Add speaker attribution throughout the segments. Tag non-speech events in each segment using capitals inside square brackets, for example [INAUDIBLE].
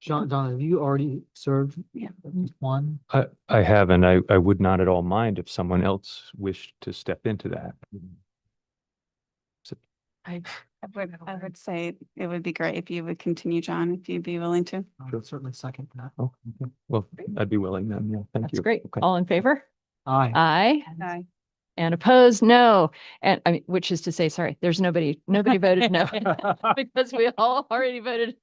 Speaker 1: John, Donna, have you already served?
Speaker 2: Yeah.
Speaker 1: One?
Speaker 3: I, I haven't. I, I would not at all mind if someone else wished to step into that.
Speaker 2: I would, I would say it would be great if you would continue, John, if you'd be willing to.
Speaker 4: Mm-hmm.
Speaker 1: I would Certainly second that.
Speaker 3: Oh, okay. Well, I'd be willing then. Yeah, thank you.
Speaker 5: That's great.
Speaker 3: Okay.
Speaker 5: All in favor?
Speaker 1: Aye.
Speaker 5: Aye.
Speaker 2: Aye.
Speaker 5: And opposed? No. And I mean, which is to say, sorry, there's nobody, nobody
Speaker 3: [LAUGHS]
Speaker 5: voted no. Because we all already voted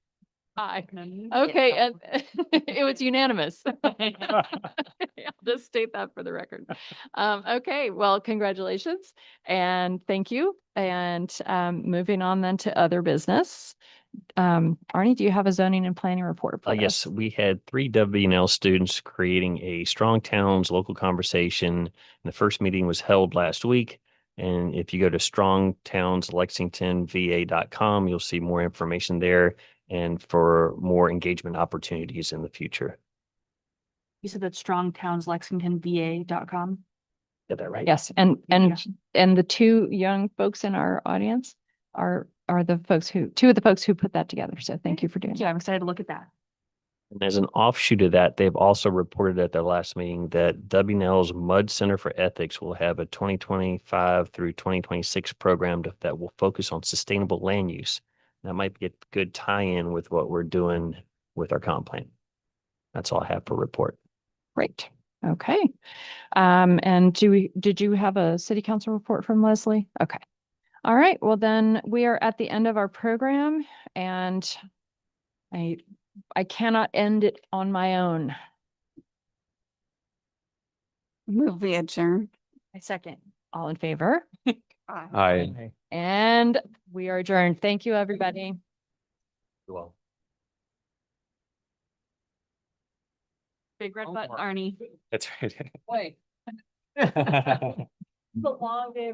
Speaker 5: aye.
Speaker 4: Oh,
Speaker 5: Okay, and [LAUGHS] it was unanimous. I'll Just state that for the record. Um, okay, well, congratulations and thank you. And um, moving on then to other business. Um, Arnie, do you have a zoning and planning report?
Speaker 6: Uh,
Speaker 5: for
Speaker 6: yes,
Speaker 5: us?
Speaker 6: we had three WNL students creating a strong towns local conversation. The first meeting was held last week. And if you go to strongtownslexingtonva.com, you'll see more information there and for more engagement opportunities in the future.
Speaker 4: You said that strong towns Lexington VA dot com.
Speaker 6: Got that right?
Speaker 5: Yes, and, and,
Speaker 4: Yeah.
Speaker 5: and the two young folks in our audience are, are the folks who, two of the folks who put that together. So thank you for doing
Speaker 4: Thank you.
Speaker 5: that.
Speaker 4: I'm excited to look at that.
Speaker 6: And as an offshoot of that, they've also reported at their last meeting that WNL's Mud Center for Ethics will have a twenty twenty-five through twenty twenty-six program to- that will focus on sustainable land use. That might be a good tie-in with what we're doing with our comp plan. That's all I have for report.
Speaker 5: Great. Okay. Um, and do we, did you have a city council report from Leslie? Okay. All right. Well, then we are at the end of our program and I, I cannot end it on my own.
Speaker 2: Move we adjourn.
Speaker 5: I second. All in favor?
Speaker 3: Aye.
Speaker 5: And we are adjourned. Thank you, everybody.
Speaker 6: Well.
Speaker 5: Big red
Speaker 1: button,
Speaker 5: Arnie.
Speaker 3: That's right.
Speaker 5: Wait.
Speaker 3: Wait.
Speaker 5: long day